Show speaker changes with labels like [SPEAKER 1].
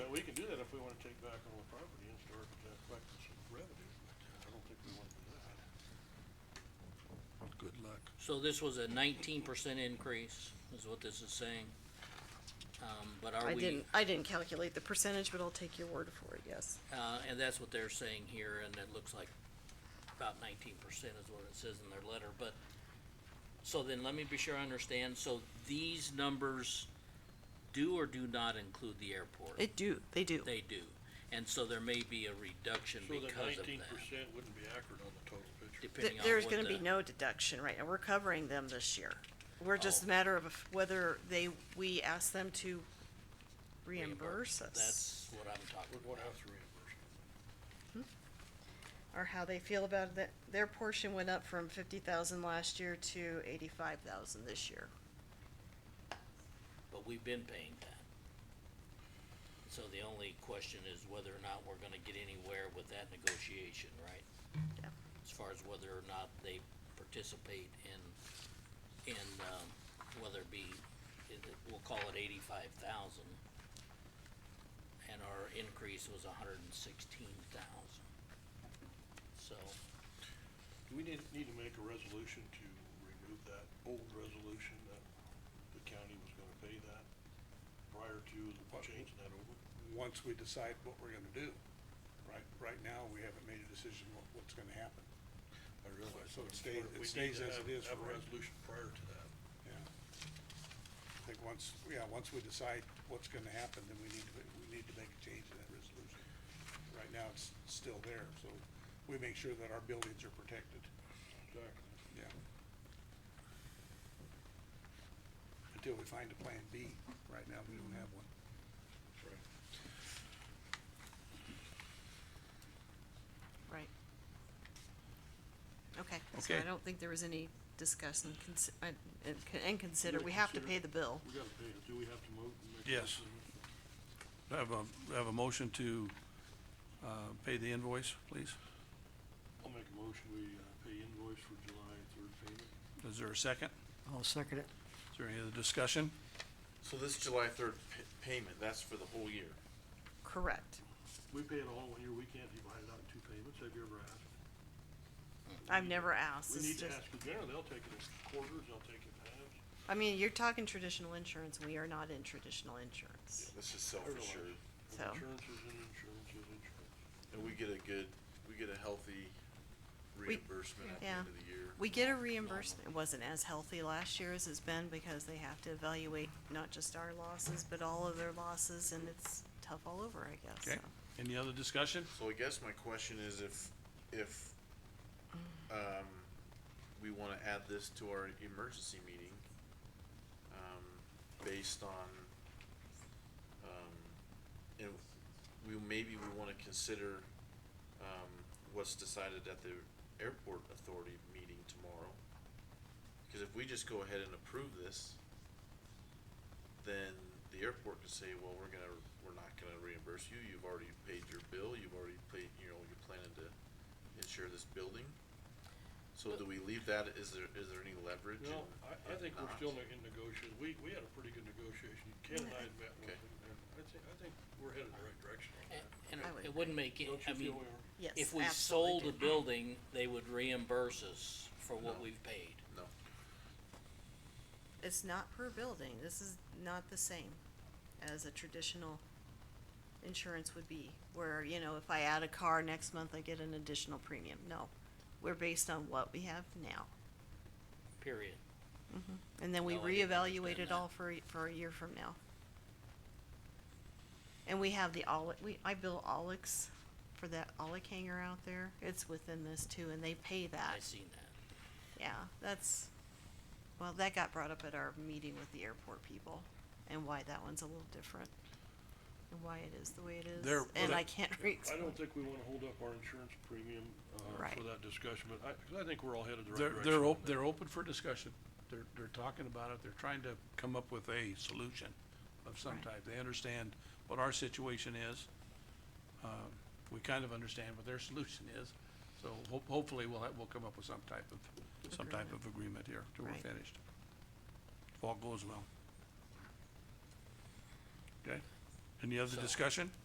[SPEAKER 1] o'clock.
[SPEAKER 2] So this was a nineteen percent increase, is what this is saying. Um, but are
[SPEAKER 3] I
[SPEAKER 2] we,
[SPEAKER 3] didn't, I didn't calculate the percentage, but I'll take your word for it, yes.
[SPEAKER 2] uh, and that's what they're saying here, and it looks like about nineteen percent is what it says in their letter, but. So then let me be sure I understand, so these numbers do or do not include the airport?
[SPEAKER 3] They do, they do.
[SPEAKER 2] They do, and so there may be a reduction
[SPEAKER 1] So that
[SPEAKER 2] because of
[SPEAKER 1] nineteen
[SPEAKER 2] that,
[SPEAKER 1] percent wouldn't be accurate on the total picture.
[SPEAKER 2] depending on what the.
[SPEAKER 3] There's gonna be no deduction right now, we're covering them this year. We're just
[SPEAKER 2] Oh.
[SPEAKER 3] a matter of if- whether they, we ask them to reimburse us,
[SPEAKER 2] That's what I'm talking
[SPEAKER 1] We're
[SPEAKER 2] about.
[SPEAKER 1] gonna have to reimburse. it.
[SPEAKER 3] or how they feel about that. Their portion went up from fifty thousand last year to eighty-five thousand this year.
[SPEAKER 2] but we've been paying that. So the only question is whether or not we're gonna get anywhere with that negotiation, right?
[SPEAKER 3] Yeah.
[SPEAKER 2] As far as whether or not they participate in, in, um, whether it be, it, it- we'll call it eighty-five thousand. And our increase was hundred and sixteen thousand. So,
[SPEAKER 1] Do we need, need to make a resolution to remove that old resolution that the county was gonna pay that prior to
[SPEAKER 4] What?
[SPEAKER 1] changing that over?
[SPEAKER 4] once we decide what we're gonna do. Right, right now, we haven't made a decision what, what's gonna happen,
[SPEAKER 1] I realize.
[SPEAKER 4] So it
[SPEAKER 1] but
[SPEAKER 4] stays-
[SPEAKER 1] we
[SPEAKER 4] it
[SPEAKER 1] need
[SPEAKER 4] stays
[SPEAKER 1] to
[SPEAKER 4] as
[SPEAKER 1] have-
[SPEAKER 4] it is
[SPEAKER 1] Have
[SPEAKER 4] for
[SPEAKER 1] a
[SPEAKER 4] right-
[SPEAKER 1] resolution prior to that.
[SPEAKER 4] yeah. I think once, yeah, once we decide what's gonna happen, then we need to, we need to make a change in that resolution. Right now, it's still there, so we make sure that our buildings are protected,
[SPEAKER 1] Exactly.
[SPEAKER 4] yeah. Until we find a plan B, right now, we don't have one.
[SPEAKER 1] That's right.
[SPEAKER 3] Right. Okay, so
[SPEAKER 5] Okay.
[SPEAKER 3] I don't think there was any discuss and consi- and, and con- and consider,
[SPEAKER 1] Yeah,
[SPEAKER 3] we have to
[SPEAKER 1] consider.
[SPEAKER 3] pay the bill.
[SPEAKER 1] We gotta pay it. Do we have to move? and make a
[SPEAKER 4] Yes.
[SPEAKER 1] resolution?
[SPEAKER 5] Do I have a, do I have a motion to, uh, pay the invoice, please?
[SPEAKER 1] I'll make a motion, we uh, pay invoice for July third payment.
[SPEAKER 5] Is there a second?
[SPEAKER 6] I'll second it.
[SPEAKER 5] Is there any other discussion?
[SPEAKER 7] So this July third pa- payment, that's for the whole year?
[SPEAKER 3] Correct.
[SPEAKER 1] We pay it all in one year, we can't divide it out in two payments, have you ever asked?
[SPEAKER 3] I've never asked.
[SPEAKER 1] We
[SPEAKER 3] it's
[SPEAKER 1] need to
[SPEAKER 3] just-
[SPEAKER 1] ask the general, they'll take it in quarters, they'll take it in halves.
[SPEAKER 3] I mean, you're talking traditional insurance, we are not in traditional insurance.
[SPEAKER 7] This is self-assured,
[SPEAKER 3] So,
[SPEAKER 1] Insurance is in insurance is insurance.
[SPEAKER 7] and we get a good, we get a healthy reimbursement at the
[SPEAKER 3] yeah.
[SPEAKER 7] end of the year.
[SPEAKER 3] we get a reimbursement, it wasn't as healthy last year as it's been because they have to evaluate not just our losses, but all of their losses and it's tough all over, I guess,
[SPEAKER 5] Okay,
[SPEAKER 3] so.
[SPEAKER 5] any other discussion?
[SPEAKER 7] So I guess my question is if, if,
[SPEAKER 3] Mm.
[SPEAKER 7] um, we wanna add this to our emergency meeting, um, based on, um, you know, we, maybe we wanna consider, um, what's decided at the airport authority meeting tomorrow. Cause if we just go ahead and approve this, then the airport could say, well, we're gonna, we're not gonna reimburse you, you've already paid your bill, you've already paid, you know, you're planning to insure this building. So do we leave that, is there, is there any leverage?
[SPEAKER 1] No,
[SPEAKER 7] in-
[SPEAKER 1] I, I
[SPEAKER 7] in
[SPEAKER 1] think we're
[SPEAKER 7] not?
[SPEAKER 1] still in negotiation, we, we had a pretty good negotiation, Ken and I had met with
[SPEAKER 7] Okay.
[SPEAKER 1] them, and I think, I think we're headed in the right direction on that.
[SPEAKER 2] And
[SPEAKER 3] Uh, I would
[SPEAKER 2] it wouldn't make, it-
[SPEAKER 1] Don't
[SPEAKER 2] I
[SPEAKER 1] you
[SPEAKER 2] mean,
[SPEAKER 1] feel we are?
[SPEAKER 3] Yes,
[SPEAKER 2] if we
[SPEAKER 3] absolutely
[SPEAKER 2] sold the
[SPEAKER 3] do.
[SPEAKER 2] building, they would reimburse us for what
[SPEAKER 7] No.
[SPEAKER 2] we've paid.
[SPEAKER 7] No,
[SPEAKER 3] It's not per building, this is not the same as a traditional insurance would be, where, you know, if I add a car next month, I get an additional premium, no. We're based on what we have now.
[SPEAKER 2] Period.
[SPEAKER 3] And then we
[SPEAKER 2] No, I didn't
[SPEAKER 3] reevaluate
[SPEAKER 2] understand
[SPEAKER 3] it
[SPEAKER 2] that.
[SPEAKER 3] all for, a- for a year from now. And we have the Olic, we, I bill Olix for that Olic hangar out there, it's within this too, and they pay that,
[SPEAKER 2] I seen that.
[SPEAKER 3] yeah, that's, well, that got brought up at our meeting with the airport people, and why that one's a little different. And why it is the way it is,
[SPEAKER 4] There-
[SPEAKER 3] and
[SPEAKER 4] well,
[SPEAKER 3] I can't
[SPEAKER 1] Yeah,
[SPEAKER 3] re-
[SPEAKER 1] I don't think we wanna hold up our insurance premium, uh,
[SPEAKER 3] Right.
[SPEAKER 1] for that discussion, but I, 'cause I think we're all headed the right
[SPEAKER 5] They're,
[SPEAKER 1] direction.
[SPEAKER 5] they're
[SPEAKER 1] on
[SPEAKER 5] op-
[SPEAKER 1] that.
[SPEAKER 5] they're open for discussion. They're, they're talking about it. They're trying to come up with a solution of some type. They understand what our situation is. Um, we kind of understand what their solution is. So ho- hopefully we'll, ha- we'll come up with some type of, some type of agreement here till we're
[SPEAKER 3] Right.
[SPEAKER 5] finished. If all goes well. Okay? Any other discussion?